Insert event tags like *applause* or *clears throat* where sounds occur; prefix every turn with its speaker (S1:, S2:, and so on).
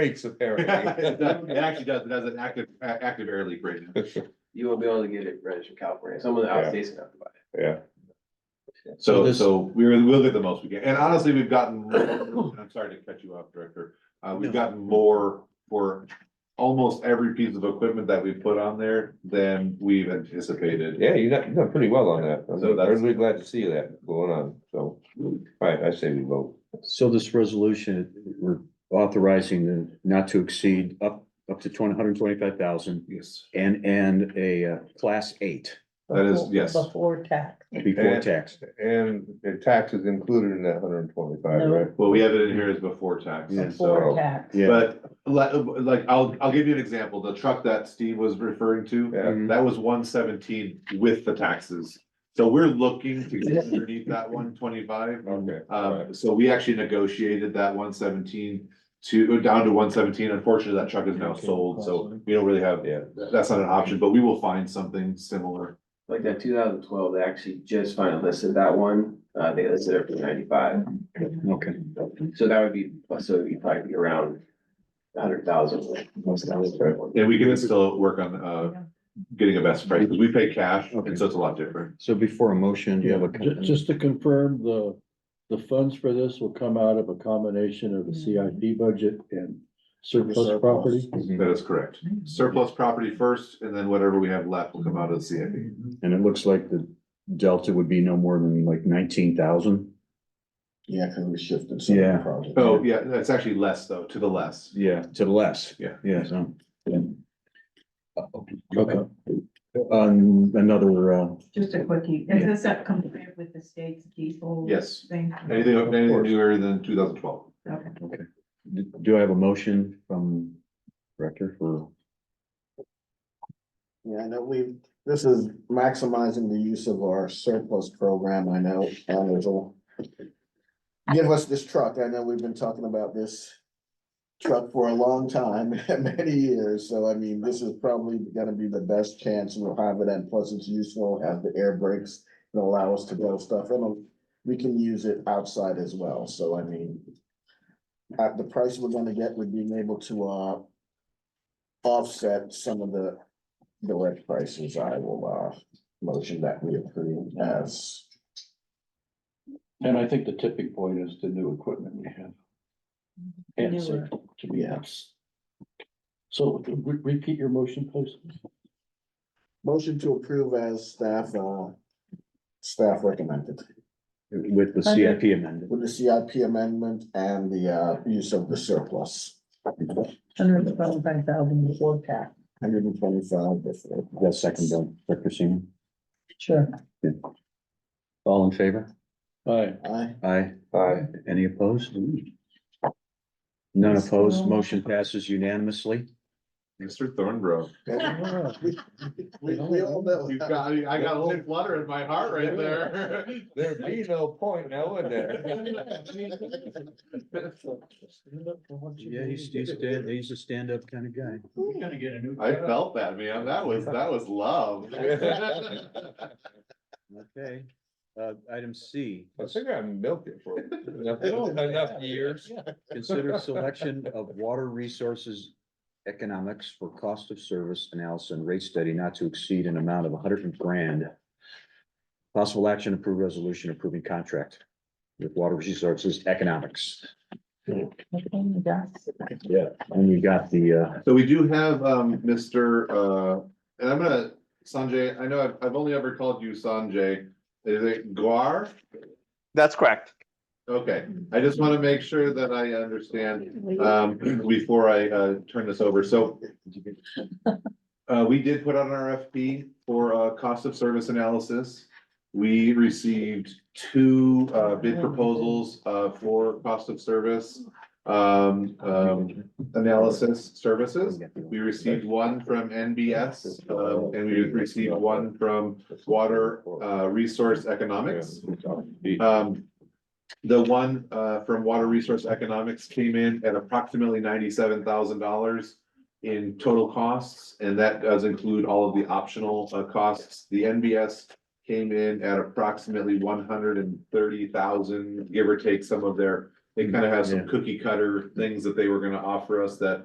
S1: rates *laughs* apparently.
S2: It does- *laughs* it actually does, it has an active, a- active air leak right now.
S3: You won't be able to get it registered in California, some of the
S1: Yeah.
S3: outstates have to buy it.
S1: Yeah,
S4: So
S2: So,
S4: this-
S2: so we were, we'll get the most we can, and honestly, we've gotten, and I'm sorry to cut you off, Director. Uh, we've
S4: No.
S2: gotten more for almost every piece of equipment that we put on there than we've anticipated.
S1: yeah, you done, you done pretty well on that. I'm
S2: So that's-
S1: really glad to see that going on, so, alright, I say we vote.
S4: so this resolution, we're authorizing the not to exceed up, up to one hundred twenty-five thousand
S2: Yes.
S4: and, and a uh, class eight
S2: That is-
S5: Before-
S2: yes.
S5: Before tax.
S4: before
S1: And- uh,
S4: tax.
S1: And the tax is included in that hundred and twenty-five,
S5: No.
S1: right?
S2: Well, we have it in here as before tax,
S4: Yeah.
S2: so,
S5: Before tax.
S4: Yeah.
S2: but like, like, I'll, I'll give you an example, the truck that Steve was referring to.
S1: Yeah.
S4: Mhm.
S2: That was one seventeen with the taxes. So we're looking to get underneath that one twenty-five.
S1: Okay. alright.
S2: Um, so we actually negotiated that one seventeen to, uh, down to one seventeen. Unfortunately, that truck is now sold, so we don't really have,
S1: Yeah.
S2: that's not an option, but we will find something similar.
S3: Like that two thousand twelve, they actually just finally listed that one, uh, they listed it for ninety-five,
S6: Mm-hmm.
S4: Okay.
S3: so that would be, so it'd be probably be around hundred thousand.
S2: And we can still work on, uh, getting a best price, because we pay cash, and so it's a lot different.
S4: So before a motion, you have
S6: Yeah,
S4: a.
S6: ju- just to confirm, the, the funds for this will come out of a combination of the CIP budget and surplus property.
S1: mhm.
S2: That is correct. Surplus property first, and then whatever we have left will come out of the CIP.
S4: And it looks like the delta would be no more than like nineteen thousand.
S6: Yeah, cause we shifted
S4: some of the Yeah.
S6: projects.
S2: Oh, yeah, that's actually less though, to the less.
S4: Yeah. To the less.
S2: Yeah.
S4: Yeah, so.
S6: Okay.
S4: On Uh, another, uh,
S7: Just a quickie,
S4: Yeah.
S7: is this that compared with the state's diesel?
S2: Yes,
S7: Thing?
S2: anything, anything
S4: course.
S2: newer than two thousand twelve.
S7: Okay.
S4: do, do I have a motion from director for?
S6: Yeah, I know we, this is maximizing the use of our surplus program, I know, and there's a. Give us this truck, I know we've been talking about this truck for a long time, *laughs* many years, so I mean, this is probably gonna be the best chance we'll have it, and plus it's useful, have the air brakes. And allow us to blow stuff in, we can use it outside as well, so I mean. At the price we're gonna get with being able to uh. Offset some of the the red prices, I will, uh, motion that we approve as.
S8: And I think the tipping point is the new equipment we have. Answer to be yes. So re- repeat your motion, please.
S6: Motion to approve as staff, uh, staff recommended,
S4: With the CIP amended.
S6: with the CIP amendment and the, uh, use of the surplus.
S5: Hundred and twenty-five thousand before tax,
S6: Hundred and twenty-five, that's it.
S4: That second, by Director Seaman.
S5: sure.
S4: All in favor?
S8: Aye.
S6: Aye.
S4: Aye.
S1: Aye.
S4: Any opposed? None opposed. Motion passes unanimously.
S2: Mr. Thornbrough.
S6: We, we- we all know.
S2: You've got, I I got a little flutter in my heart right there.
S1: There'd be no point now, would there?
S4: Yeah, he's, he's, stand- he's a stand-up kind of guy.
S2: I felt that, man. That was, that was love.
S4: Okay. Uh, item C,
S1: I think I milked it for enough- enough years.
S4: consider selection of water resources economics for cost of service analysis and rate study not to exceed an amount of hundred grand. Possible action approve resolution approving contract with water resources economics. Yeah. And you got the, uh,
S2: So we do have, um, Mr., uh, and I'm gonna, Sanjay, I know I've, I've only ever called you Sanjay. Is it Guar?
S9: That's correct.
S2: Okay, I just want to make sure that I understand um, *clears throat* before I, uh, turn this over, so. Uh, we did put out an RFP for, uh, cost of service analysis. We received two, uh, bid proposals, uh, for cost of service, um, um, analysis services. We received one from NBS, um, and we received one from Water, uh, Resource Economics. Um, the one, uh, from Water Resource Economics came in at approximately ninety-seven thousand dollars in total costs, and that does include all of the optional, uh, costs. The NBS came in at approximately one hundred and thirty thousand, give or take some of their They kind of have some
S4: Yeah.
S2: cookie cutter things that they were gonna offer us that